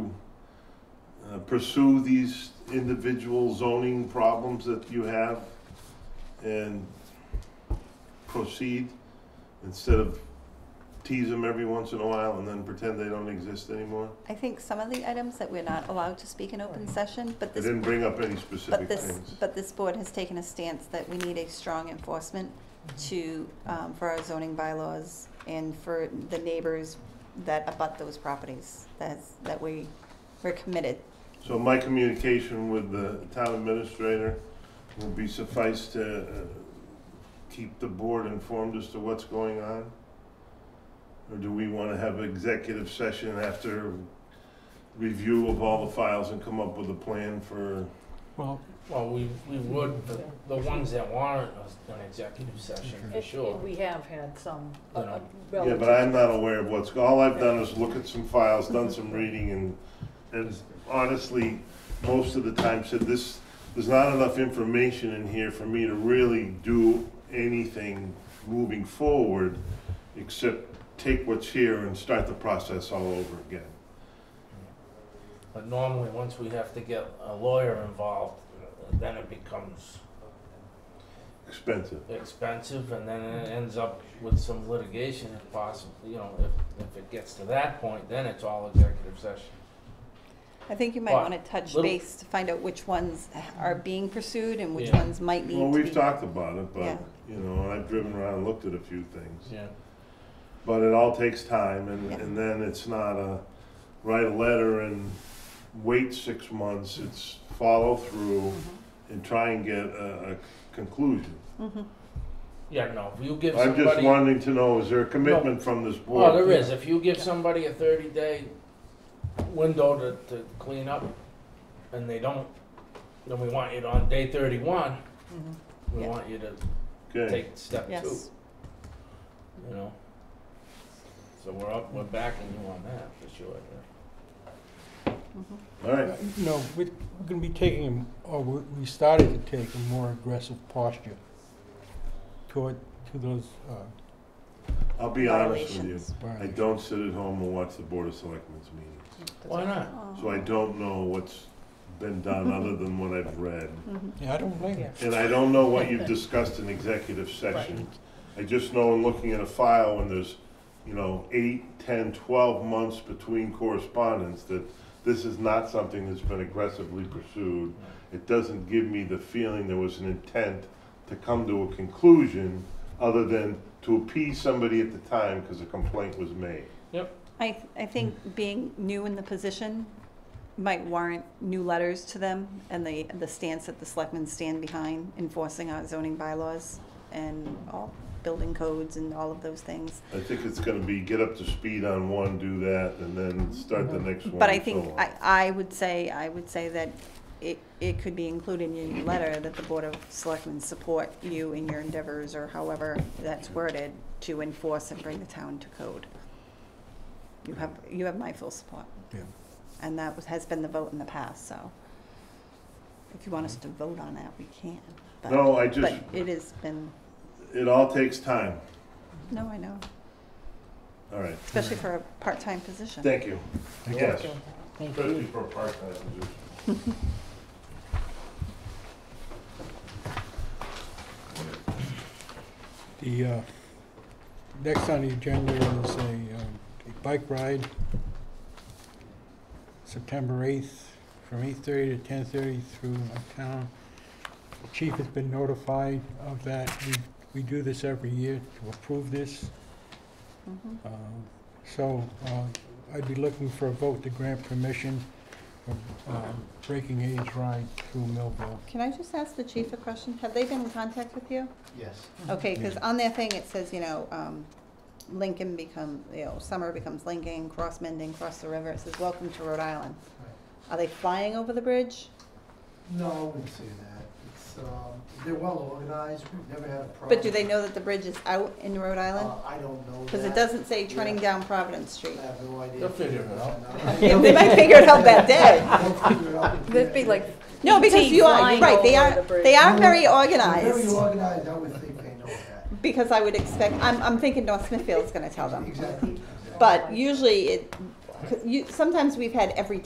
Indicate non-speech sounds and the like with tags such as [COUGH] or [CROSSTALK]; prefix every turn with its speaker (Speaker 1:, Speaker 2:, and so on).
Speaker 1: uh, pursue these individual zoning problems that you have and proceed instead of tease them every once in a while and then pretend they don't exist anymore?
Speaker 2: I think some of the items that we're not allowed to speak in open session, but
Speaker 1: I
Speaker 2: this,
Speaker 1: didn't bring up any
Speaker 2: but
Speaker 1: specific
Speaker 2: this,
Speaker 1: things.
Speaker 2: but this board has taken a stance that we need a strong enforcement
Speaker 3: Mm-hmm.
Speaker 2: to, um, for our zoning bylaws and for the neighbors that abut those properties, that's, that we, we're committed.
Speaker 1: So my communication with the town administrator will be suffice to uh, keep the board informed as to what's going on? Or do we want to have executive session after review of all the files and come up with a plan for,
Speaker 4: Well,
Speaker 3: Well, we, we would, the, the ones that warrant us an executive session, for
Speaker 5: It-
Speaker 3: sure.
Speaker 5: We have had some uh,
Speaker 3: You know.
Speaker 5: uh,
Speaker 1: yeah,
Speaker 5: relative.
Speaker 1: but I'm not aware of what's, all I've done is look at some files, done some reading and, and honestly, most of the time said this, there's not enough information in here for me to really do anything moving forward, except take what's here and start the process all over again.
Speaker 3: But normally, once we have to get a lawyer involved, then it becomes
Speaker 1: Expensive.
Speaker 3: expensive and then it ends up with some litigation if possible, you know, if, if it gets to that point, then it's all executive session.
Speaker 2: I think you might
Speaker 3: Well,
Speaker 2: wanna touch
Speaker 3: little-
Speaker 2: base to find out which ones are being pursued and which
Speaker 3: Yeah.
Speaker 2: ones might need to be.
Speaker 1: Well, we've talked about it,
Speaker 2: Yeah.
Speaker 1: but, you know, I've driven around, and looked at a few things.
Speaker 3: Yeah.
Speaker 1: But it all takes time, and,
Speaker 2: Yeah.
Speaker 1: and then it's not a, write a letter and wait six months, it's follow through and try and get a, a conclusion.
Speaker 2: Mhm.
Speaker 3: Yeah, no, if you give
Speaker 1: I'm just
Speaker 3: somebody,
Speaker 1: wanting to know, is there a commitment from this board?
Speaker 3: oh, there is, if you give somebody a thirty day window to, to clean up and they don't, then we want you to, on day thirty one,
Speaker 5: Mhm.
Speaker 3: we
Speaker 2: Yeah.
Speaker 3: want you to
Speaker 1: Okay,
Speaker 3: take step two,
Speaker 2: Yes,
Speaker 3: you know? So we're up, we're backing you on that for sure, yeah.
Speaker 2: Mhm.
Speaker 1: all right,
Speaker 4: no, we- we're going to be taking, a- or we we started to take a more aggressive posture toward, to those, uh,
Speaker 1: I'll be honest with you.
Speaker 2: Violations.
Speaker 1: I
Speaker 4: violations.
Speaker 1: don't sit at home and watch the Board of Selectmen's meetings,
Speaker 3: Why not?
Speaker 1: so
Speaker 2: Oh.
Speaker 1: I don't know what's been done other than what I've read.
Speaker 2: Mhm.
Speaker 4: Yeah, I don't blame you.
Speaker 1: And I don't know what
Speaker 2: [LAUGHS]
Speaker 1: you've discussed in executive session. I just know in looking at a file when there's, you know, eight, ten, twelve months between correspondence that this is not something that's been aggressively pursued. It doesn't give me the feeling there was an intent to come to a conclusion other than to appease somebody at the time because a complaint was made.
Speaker 2: I, th- I think being new in the position might warrant new letters to them and the, the stance that the selectmen stand behind enforcing our zoning bylaws and all building codes and all of those things.
Speaker 1: I think it's gonna be get up to speed on one, do that, and then start the next one.
Speaker 2: Mm-hmm. But I
Speaker 1: and so
Speaker 2: think,
Speaker 1: on.
Speaker 2: I, I would say, I would say that it, it could be included in your letter that the Board of Selectmen support you in your endeavors or however that's worded to enforce and bring the town to code. You have, you have my full support.
Speaker 4: Yeah.
Speaker 2: And that was, has been the vote in the past, so if you want us to vote on that, we can. but-
Speaker 1: Mm-hmm. No, I just,
Speaker 2: But it has been,
Speaker 1: it all takes time.
Speaker 2: no, I know,
Speaker 1: All right,
Speaker 2: especially for a part-time position.
Speaker 1: thank you.
Speaker 4: Thank you.
Speaker 1: Yes, especially for a part-time position.
Speaker 4: The, uh, next on the agenda is a, um, a bike ride, September eighth, from eight-thirty to ten-thirty through town. The Chief has been notified of that. We, we do this every year to approve this.
Speaker 2: Mhm.
Speaker 4: Um, So uh, I'd be looking for a vote to grant permission for um, Breaking Age Ride through Millville.
Speaker 2: Can I just ask the chief a question? Have they been in contact with you?
Speaker 6: Yes.
Speaker 2: Okay, because
Speaker 4: Yeah.
Speaker 2: on their thing, it says, you know, um, Lincoln become, you know, summer becomes Lincoln, cross Mendon, cross the river, it says, welcome to Rhode Island. Are they flying over the bridge?
Speaker 6: No, I wouldn't say that. It's, um, they're well organized. We've never had a problem.
Speaker 2: But do they know that the bridge is out in Rhode Island?
Speaker 6: Uh, I don't know that.
Speaker 2: Because it doesn't say turning
Speaker 6: Yeah.
Speaker 2: down Providence
Speaker 6: I
Speaker 2: Street.
Speaker 6: have no idea.
Speaker 3: They'll figure it out.
Speaker 2: Yeah, [LAUGHS] They might figure it out
Speaker 6: [LAUGHS]
Speaker 2: that day.
Speaker 6: They'll figure it
Speaker 2: [LAUGHS]
Speaker 6: out.
Speaker 5: That'd be like,
Speaker 2: No, because you are, you're
Speaker 5: Flying
Speaker 2: right, they
Speaker 5: over
Speaker 2: are,
Speaker 5: the bridge.
Speaker 2: they are very
Speaker 6: They're Very
Speaker 2: organized.
Speaker 6: organized, I would think they know that.
Speaker 2: Because I would expect, I'm, I'm thinking North Smithfield's gonna tell them.
Speaker 6: Exactly. exactly.
Speaker 2: But usually it, 'cause you, sometimes we've had every